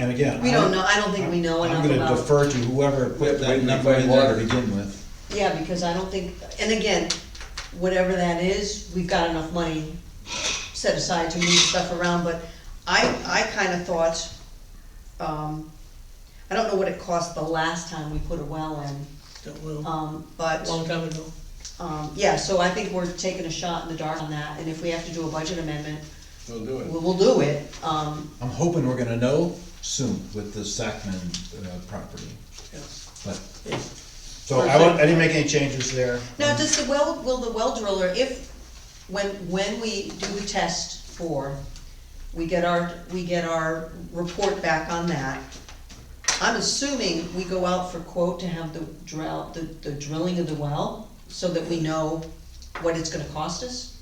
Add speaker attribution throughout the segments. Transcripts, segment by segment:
Speaker 1: And again.
Speaker 2: We
Speaker 1: I-
Speaker 2: don't know, I don't think we know
Speaker 1: I'm
Speaker 2: enough
Speaker 1: gonna
Speaker 2: about.
Speaker 1: defer to whoever
Speaker 3: We have
Speaker 1: put
Speaker 3: to
Speaker 1: that
Speaker 3: wait
Speaker 1: number in there
Speaker 3: water.
Speaker 1: to begin with.
Speaker 2: Yeah, because I don't think, and again, whatever that is, we've got enough money set aside to move stuff around, but I, I kinda thought, um, I don't know what it cost the last time we put a well in,
Speaker 4: That will,
Speaker 2: um,
Speaker 4: a
Speaker 2: but,
Speaker 4: long time ago.
Speaker 2: um, yeah, so I think we're taking a shot in the dark on that, and if we have to do a budget amendment,
Speaker 3: We'll do it.
Speaker 2: we'll, we'll do it, um,
Speaker 1: I'm hoping we're gonna know soon with the Sacman, uh, property,
Speaker 4: Yeah.
Speaker 1: but,
Speaker 4: Yeah.
Speaker 1: so I won't, I didn't make any changes there.
Speaker 2: Now, does the well, will the well driller, if, when, when we do the test for, we get our, we get our report back on that. I'm assuming we go out for quote to have the drill, the, the drilling of the well, so that we know what it's gonna cost us?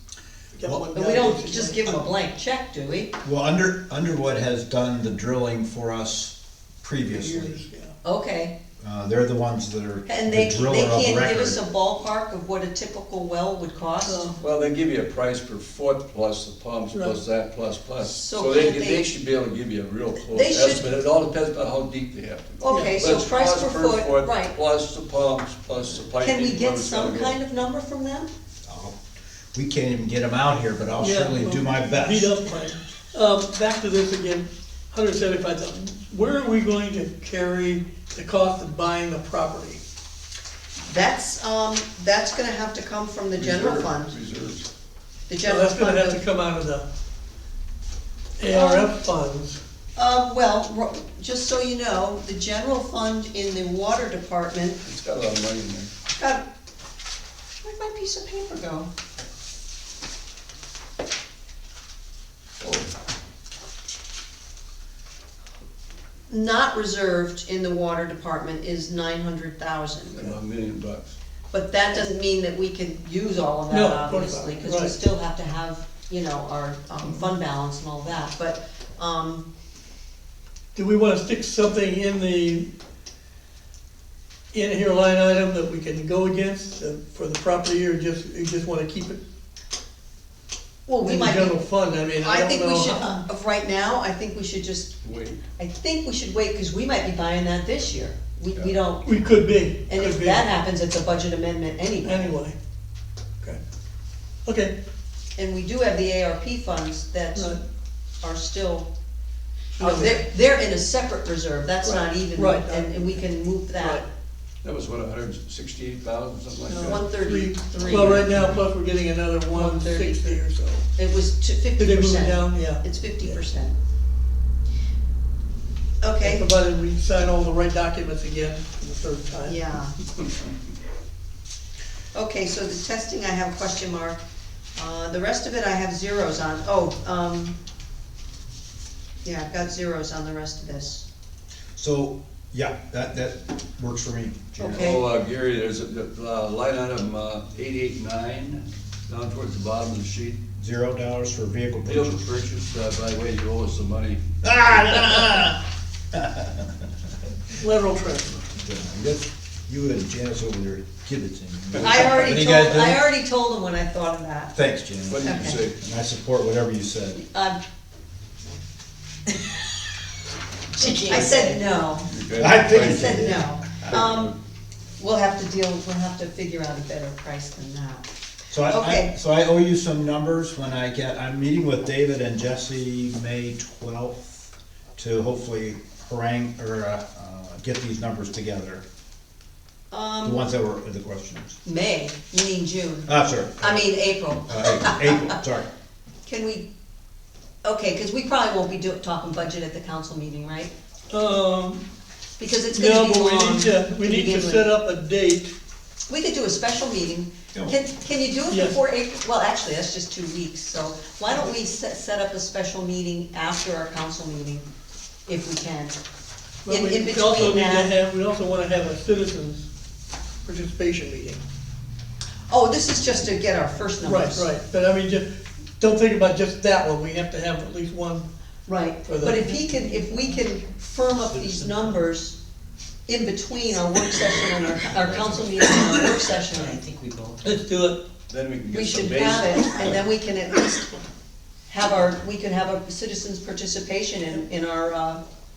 Speaker 4: Got
Speaker 1: Well,
Speaker 4: one
Speaker 2: But
Speaker 4: guy
Speaker 2: we don't
Speaker 4: that's-
Speaker 2: just give them a blank check, do we?
Speaker 1: Well, Under, Underwood has done the drilling for us
Speaker 4: Years,
Speaker 1: previously.
Speaker 4: yeah.
Speaker 2: Okay,
Speaker 1: Uh, they're the ones that are
Speaker 2: Mm-hmm. and they,
Speaker 1: the
Speaker 2: they
Speaker 1: driller of
Speaker 2: can't give us
Speaker 1: record.
Speaker 2: a ballpark of what a typical well would cost?
Speaker 4: So,
Speaker 3: Well, they give you a price per foot plus the pumps, plus that, plus, plus.
Speaker 2: So
Speaker 3: So they,
Speaker 2: can't they-
Speaker 3: they should be able to give you a real close
Speaker 2: They should-
Speaker 3: estimate. It all depends on how deep they have to go.
Speaker 2: Okay,
Speaker 3: But
Speaker 2: so
Speaker 3: it's
Speaker 2: price per foot, right.
Speaker 3: Plus the pumps, plus the piping.
Speaker 2: Can we
Speaker 3: where
Speaker 2: get
Speaker 3: it's gotta
Speaker 2: some
Speaker 3: go.
Speaker 2: kind of number from them?
Speaker 1: I'll- We can't even get them out here, but I'll
Speaker 4: yeah,
Speaker 1: certainly do
Speaker 4: well,
Speaker 1: my
Speaker 4: Beat
Speaker 1: best.
Speaker 4: up plan. Um, back to this again, hundred seventy-five thousand. Where are we going to carry the cost of buying the property?
Speaker 2: That's, um, that's gonna have to come from the general
Speaker 3: Reserve,
Speaker 2: fund,
Speaker 3: Reserves.
Speaker 2: the
Speaker 4: So
Speaker 2: general
Speaker 4: that's
Speaker 2: fund.
Speaker 4: gonna have to come out of the ARF funds.
Speaker 2: Uh, well, ro- just so you know, the general fund in the water department,
Speaker 3: It's got a lot of money in there.
Speaker 2: God, where'd my piece of paper go?
Speaker 3: Oh,
Speaker 2: Not reserved in the water department is nine hundred thousand,
Speaker 3: About a million bucks.
Speaker 2: but that doesn't mean that we can use all of
Speaker 4: No,
Speaker 2: that,
Speaker 4: of course not,
Speaker 2: obviously, cause we
Speaker 4: right. Mm-hmm.
Speaker 2: still have to have, you know, our, um, fund balance and all that, but, um,
Speaker 4: Do we wanna stick something in the, in here line item that we can go against uh, for the property, or just, you just wanna keep it
Speaker 2: well, we
Speaker 4: in
Speaker 2: might
Speaker 4: the
Speaker 2: be
Speaker 4: general fund, I mean, I
Speaker 2: I
Speaker 4: don't know.
Speaker 2: think we should,
Speaker 4: how-
Speaker 2: uh, of right now, I think we should just,
Speaker 3: Wait,
Speaker 2: I think we should wait, cause we might be buying that this year. We, we
Speaker 3: Yeah.
Speaker 2: don't,
Speaker 4: We could be,
Speaker 2: and if
Speaker 4: could be,
Speaker 2: that happens, it's a budget amendment anyway.
Speaker 4: anyway. Okay, okay,
Speaker 2: And we do have the ARP funds that
Speaker 4: Right.
Speaker 2: are still, oh,
Speaker 4: Okay.
Speaker 2: they're, they're in a separate reserve, that's not even,
Speaker 4: Right.
Speaker 2: and, and we can move that.
Speaker 4: Right.
Speaker 3: that was what, a hundred and sixty-eight thousand, something like that?
Speaker 2: One thirty-three.
Speaker 4: well, right now, plus we're getting another one
Speaker 2: 130.
Speaker 4: sixty or so.
Speaker 2: It was to
Speaker 4: Did
Speaker 2: fifty
Speaker 4: they move it
Speaker 2: percent.
Speaker 4: down? Yeah.
Speaker 2: It's fifty percent.
Speaker 4: Okay,
Speaker 2: Okay,
Speaker 4: Provided we sign all the right documents again for the third time.
Speaker 2: yeah. Okay, so the testing, I have a question mark. Uh, the rest of it I have zeros on. Oh, um, yeah, I've got zeros on the rest of this.
Speaker 1: So, yeah, that, that works for me, Janet.
Speaker 2: Okay.
Speaker 3: Oh, uh, Gary, there's a, uh, line item, uh, eight-eight-nine, down towards the bottom of the sheet.
Speaker 1: Zero dollars for vehicle
Speaker 3: Deal to
Speaker 1: purchase.
Speaker 3: purchase, uh, by the way, you owe us some money.
Speaker 4: Lateral transfer,
Speaker 1: That's- You and Janice over there, give it to me.
Speaker 2: I
Speaker 1: What do
Speaker 2: already
Speaker 1: you
Speaker 2: told,
Speaker 1: guys
Speaker 2: I
Speaker 1: do?
Speaker 2: already told them when I thought of that.
Speaker 1: Thanks, Janice.
Speaker 3: What did you
Speaker 2: Okay.
Speaker 3: say?
Speaker 1: And I support whatever you said.
Speaker 2: Um, I said no.
Speaker 1: I think
Speaker 2: I
Speaker 1: it's-
Speaker 2: said no. Um, we'll have to deal, we'll have to figure out a better price than that.
Speaker 1: So I- I,
Speaker 2: Okay.
Speaker 1: so I owe you some numbers when I get, I'm meeting with David and Jesse May twelfth to hopefully harangue, or, uh, uh, get these numbers together, the
Speaker 2: Um,
Speaker 1: ones that were the questions.
Speaker 2: May, you mean June,
Speaker 1: Ah, sorry,
Speaker 2: I mean April.
Speaker 1: uh, April, April, sorry.
Speaker 2: Can we, okay, cause we probably won't be do, talking budget at the council meeting, right?
Speaker 4: um,
Speaker 2: Because it's
Speaker 4: no,
Speaker 2: gonna be
Speaker 4: but we
Speaker 2: long
Speaker 4: need to,
Speaker 2: to
Speaker 4: we need to
Speaker 2: begin
Speaker 4: set
Speaker 2: with.
Speaker 4: up a date,
Speaker 2: We could do a special meeting.
Speaker 1: Yeah.
Speaker 2: Can, can you do it
Speaker 4: Yes.
Speaker 2: before April? Well, actually, that's just two weeks, so why don't we set, set up a special meeting after our council meeting, if we can?
Speaker 4: but
Speaker 2: In-
Speaker 4: we
Speaker 2: in
Speaker 4: we also
Speaker 2: between
Speaker 4: need to
Speaker 2: that-
Speaker 4: have, we also wanna have a citizens participation meeting.
Speaker 2: Oh, this is just to get our first
Speaker 4: Right,
Speaker 2: numbers.
Speaker 4: right, but I mean, just, don't think about just that one, we have to have at least one,
Speaker 2: Right,
Speaker 4: For the-
Speaker 2: but if he can, if we can firm up these numbers in between our work session and our, our council meeting and our work session,
Speaker 5: I think we both.
Speaker 4: let's do it.
Speaker 3: Then we can
Speaker 2: we
Speaker 3: get some
Speaker 2: should
Speaker 3: basic.
Speaker 2: have it, and then we can at least have our, we can have a citizens' participation in, in our, uh,